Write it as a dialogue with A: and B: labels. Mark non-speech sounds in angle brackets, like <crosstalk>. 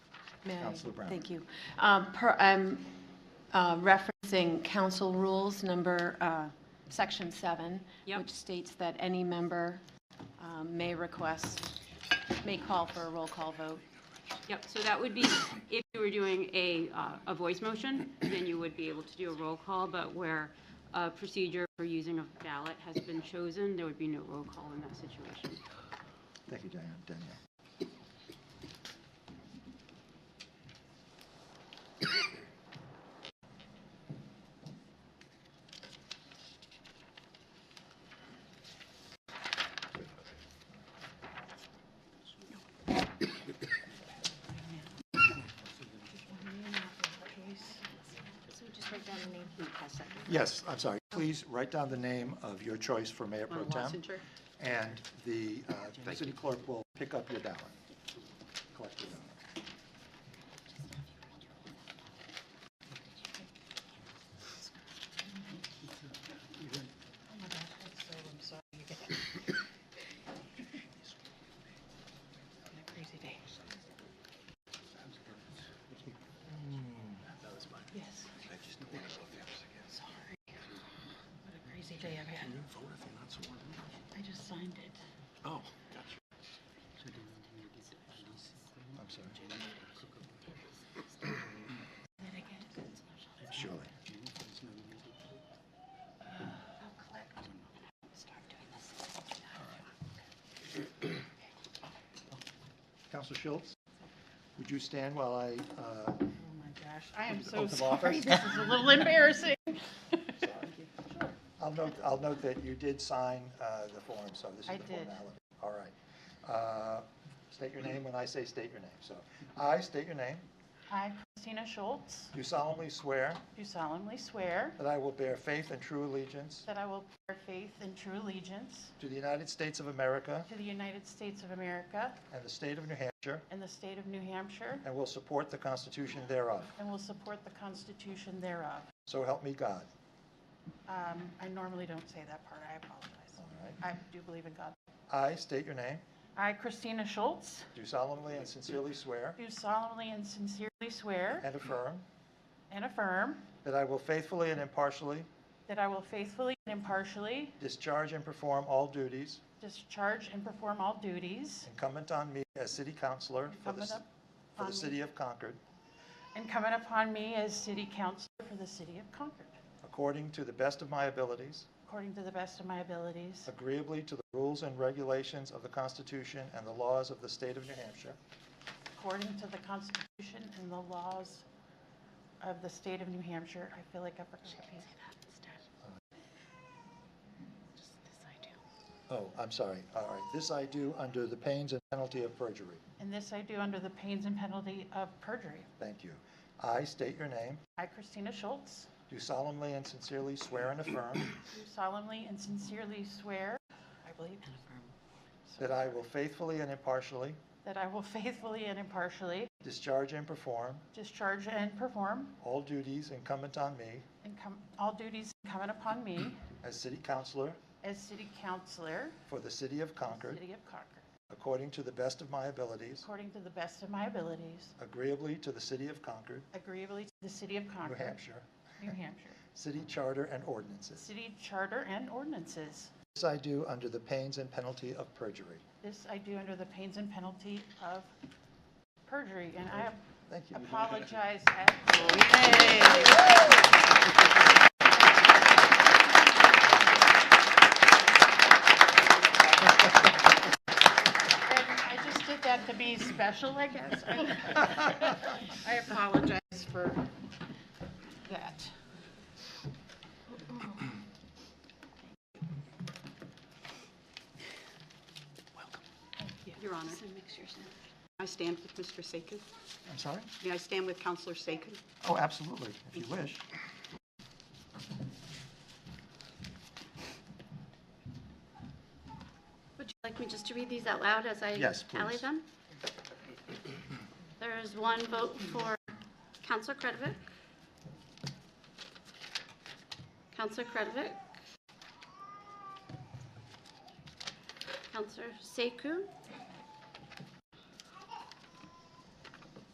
A: May I?
B: Councilor Brown.
A: Thank you. Um, per- I'm uh, referencing council rules, number, uh, section seven,
C: Yep.
A: which states that any member um, may request, may call for a roll call vote.
C: Yep, so that would be, if you were doing a, uh, a voice motion, then you would be able to do a roll call, but where a procedure for using a ballot has been chosen, there would be no roll call in that situation.
B: Thank you, Diane- Danielle. Yes, I'm sorry. Please write down the name of your choice for Mayor Pro Tem. And the uh, city clerk will pick up your ballot. collect your ballot. Oh, I'm sorry. Surely. Counselor Schultz, would you stand while I, uh,
D: Oh my gosh, I am so
B: Oath of
D: sorry.
B: office.
D: This is a little embarrassing.
B: I'll note, I'll note that you did sign uh, the form, so this
A: I
B: is the
A: did.
B: formality. All right. Uh, State your name when I say state your name. So I state your name.
D: I, Christina Schultz,
B: Do solemnly swear
D: do solemnly swear
B: that I will bear faith and true allegiance
D: that I will bear faith and true allegiance
B: to the United States of America
D: to the United States of America
B: and the state of New Hampshire,
D: and the state of New Hampshire,
B: and will support the Constitution thereof.
D: and will support the Constitution thereof.
B: So help me God.
D: Um, I normally don't say that part, I apologize.
B: All right.
D: I do believe in God.
B: I state your name.
D: I, Christina Schultz,
B: Do solemnly and sincerely swear
D: do solemnly and sincerely swear
B: and affirm
D: and affirm
B: that I will faithfully and impartially
D: that I will faithfully and impartially
B: discharge and perform all duties
D: discharge and perform all duties
B: incumbent on me as city councillor for the,
D: Incumbent
B: c-
D: up
B: for
D: on
B: the
D: me.
B: city of Concord,
D: incumbent upon me as city councilor for the city of Concord,
B: according to the best of my abilities,
D: according to the best of my abilities,
B: agreeably to the rules and regulations of the Constitution and the laws of the state of New Hampshire,
D: according to the Constitution and the laws of the state of New Hampshire. I feel like I forgot the piece.
B: Oh, I'm sorry. All right. This I do under the pains and penalty of perjury.
D: And this I do under the pains and penalty of perjury.
B: Thank you. I state your name,
D: I, Christina Schultz,
B: do solemnly and sincerely swear and affirm
D: do solemnly and sincerely swear, I believe,
B: that I will faithfully and impartially
D: that I will faithfully and impartially
B: discharge and perform
D: discharge and perform
B: all duties incumbent on me
D: incum- all duties incumbent upon me
B: as city councillor
D: as city councilor,
B: for the city of Concord,
D: city of Concord,
B: according to the best of my abilities,
D: according to the best of my abilities,
B: agreeably to the city of Concord,
D: agreeably to the city of
B: New
D: Concord.
B: Hampshire,
D: New Hampshire.
B: city charter and ordinances.
D: City charter and ordinances.
B: This I do under the pains and penalty of perjury.
D: This I do under the pains and penalty of perjury, and I
B: Thank you.
D: apologize at And I just did that to be special, I guess. I <laughs> I apologize for that.
C: Your Honor. I stand with Mr. Sakis.
B: I'm sorry?
C: May I stand with Counselor Sakis?
B: Oh, absolutely, if you wish.
E: Would you like me just to read these out loud as I
B: Yes, please.
E: tally them? There is one vote for Counselor Kretovic. Counselor Kretovic. Counselor Sekou.